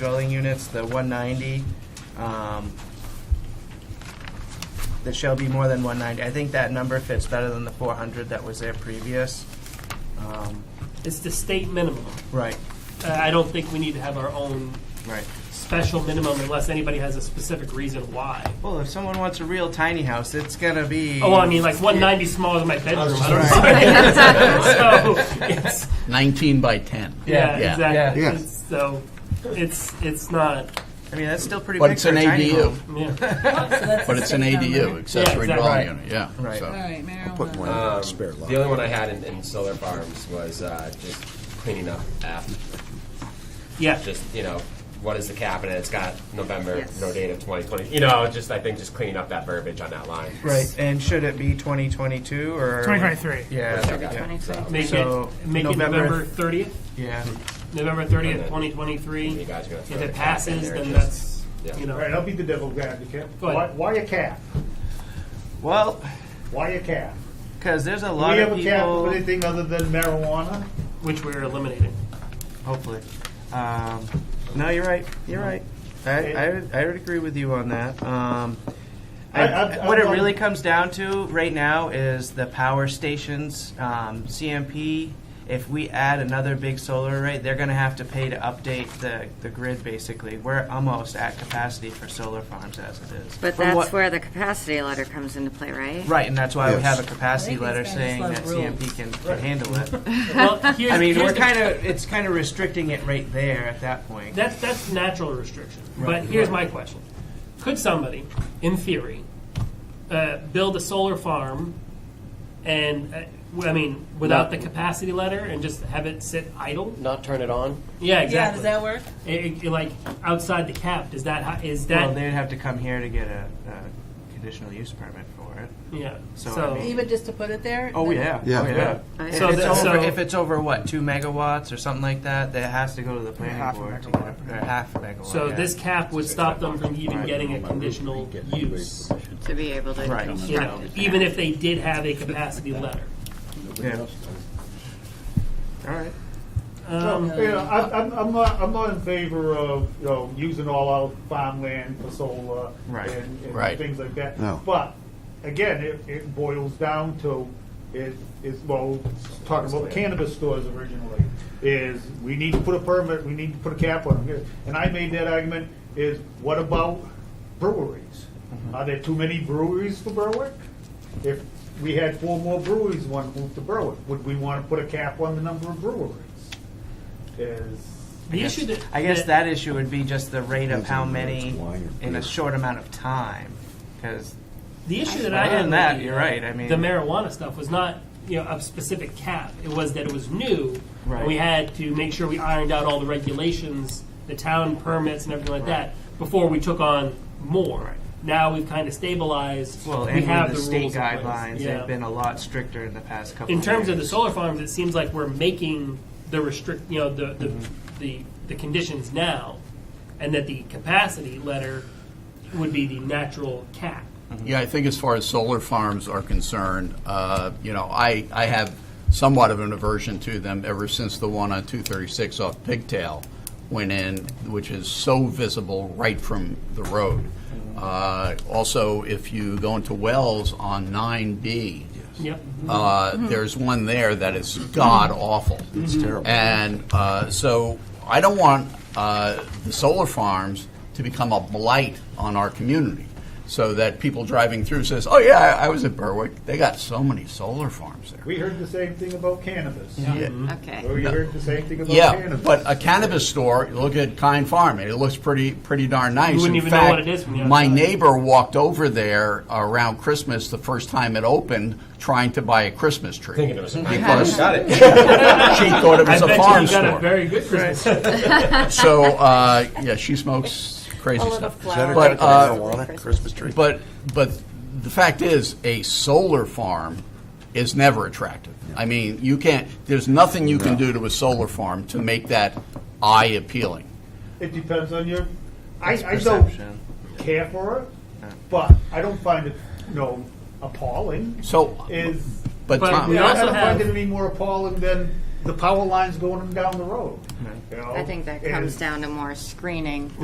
dwelling units, the 190, um, that shall be more than 190. I think that number fits better than the 400 that was there previous. Um, It's the state minimum. Uh, Right, I I don't think we need to have our own right. special minimum unless anybody has a specific reason why. Well, if someone wants a real tiny house, it's gonna be. Oh, well, I mean, like 190 smaller than my bedroom. I don't know. so it's, 19 by 10. yeah, Yeah. exactly. Yeah. It's- So it's it's not. I mean, that's still pretty But big it's for an a tiny ADU, home. Yeah. but it's an ADU, accessory Yeah, exactly. dwelling Right. unit, yeah. Right. so. All right, marijuana. Put one in Um, the spare lot. The only one I had in, in solar farms was uh, just cleaning up after. Yeah. Just you know, what is the cap and it's got November Yes. no date of 2020. You know, just I think just cleaning up that verbiage on that line. Right, and should it be 2022 or? 2023. Yeah, yeah, Make So, it make November- it November 30th. yeah. November 30th, You 2023. guys are gonna If throw the it cap in passes, there, then just- that's yeah. you know. All right, I'll be the devil's advocate. Go ahead. Why, why a calf? Well, Why a calf? because there's a Do we lot have of a cap of people, anything other than marijuana? Which we're eliminating. hopefully. Um, No, you're right, you're right. I, I, would- I would agree with you on that. Um, I- I've- I- What it I've- really comes down to right now is the power stations, um, CMP. If we add another big solar array, they're gonna have to pay to update the, the grid, basically. We're almost at capacity for solar farms as it is. But From what- that's where the capacity letter comes into play, right? Right, and that's why we Yes. have a capacity I think letter it's kinda saying slow that rules. CMP can, can handle it. Well, here's, I mean, here's we're the- kind of, it's kind of restricting it right there at that point. That's that's natural restriction. Right. But here's my question: Could somebody, in theory, uh, build a solar farm, and uh, w- I mean, without the capacity letter, and just have it sit idle? not turn it on. Yeah, Yeah, exactly. does that work? It- it- like outside the cap? Does that ho- is Well, that? they'd have to come here to get a, a conditional use permit for it. yeah. So, So, I mean- Even just to put it there? Oh, yeah, Yeah. oh, yeah. If So it's the- over, so- if it's over, what, two megawatts or something like that, that has to go to the planning board. to get- or Half a megawatt. so yeah. this cap would stop them from even getting a conditional use, To be able to Right. construct you know, it. even if they did have a capacity letter. Yeah. All right. Um, you know, I, I'm, I'm not. I'm not in favor of you know using all our farmland for solar Right. and, and Right. things like that. No. But again, it, it boils down to is is well talking about cannabis stores originally is we need to put a permit. We need to put a cap on them. And I made that argument is what about breweries? Are there too many breweries for Berwick? If we had four more breweries, one move to Berwick, would we want to put a cap on the number of breweries? is the issue that I guess that issue would be just the rate of how many Wine or in a beer. short amount of time, because The issue that I Other had than that, with the, you're right. I mean, the marijuana stuff was not you know a specific cap. It was that it was new. and Right. we had to make sure we ironed out all the regulations, the town permits, and everything like that before we took on more. Now we've kind of stabilized. well, we and have with the the state rules in place. guidelines, Yeah. they've been a lot stricter in the past couple. in terms of the years. solar farms. It seems like we're making the restrict you know the the, Mm-hmm. the the conditions now, and that the capacity letter would be the natural cap. Mm-hmm. Yeah, I think as far as solar farms are concerned, uh, you know, I, I have somewhat of an aversion to them ever since the one on 236 off Pigtail went in, which is so visible right from the road. Mm-hmm. Uh, Also, if you go into Wells on 9B, Yep. uh, there's one there that is god awful. Mm-hmm. It's terrible. And uh, so I don't want uh, the solar farms to become a blight on our community, so that people driving through says, "Oh yeah, I, I was at Berwick. They got so many solar farms there." We heard the same thing about cannabis. Mm-hmm. Okay. We heard the same thing about Yeah, cannabis. but a cannabis store, look at Kind Farm, and it looks pretty, pretty darn nice. wouldn't In even know fact, what it is from the My outside. neighbor walked over there around Christmas, the first time it opened, trying to buy a Christmas tree. Thinking it was a Because got it. she thought it I was a bet farm you got a store. very good Christmas. So, uh, yeah, she smokes crazy stuff. Better cut But, the uh, marijuana, Christmas tree. But, but the fact is, a solar farm is never attractive. I mean, you can't, there's nothing you can do to a solar farm to make that eye appealing. it depends on your. I, I don't Perception. care for it, but I don't find it, you know, appalling. So, Is but But Tom, we I also don't have- find it any more appalling than the power lines going down the road. you know, I think that and- Oh, comes down to more screening.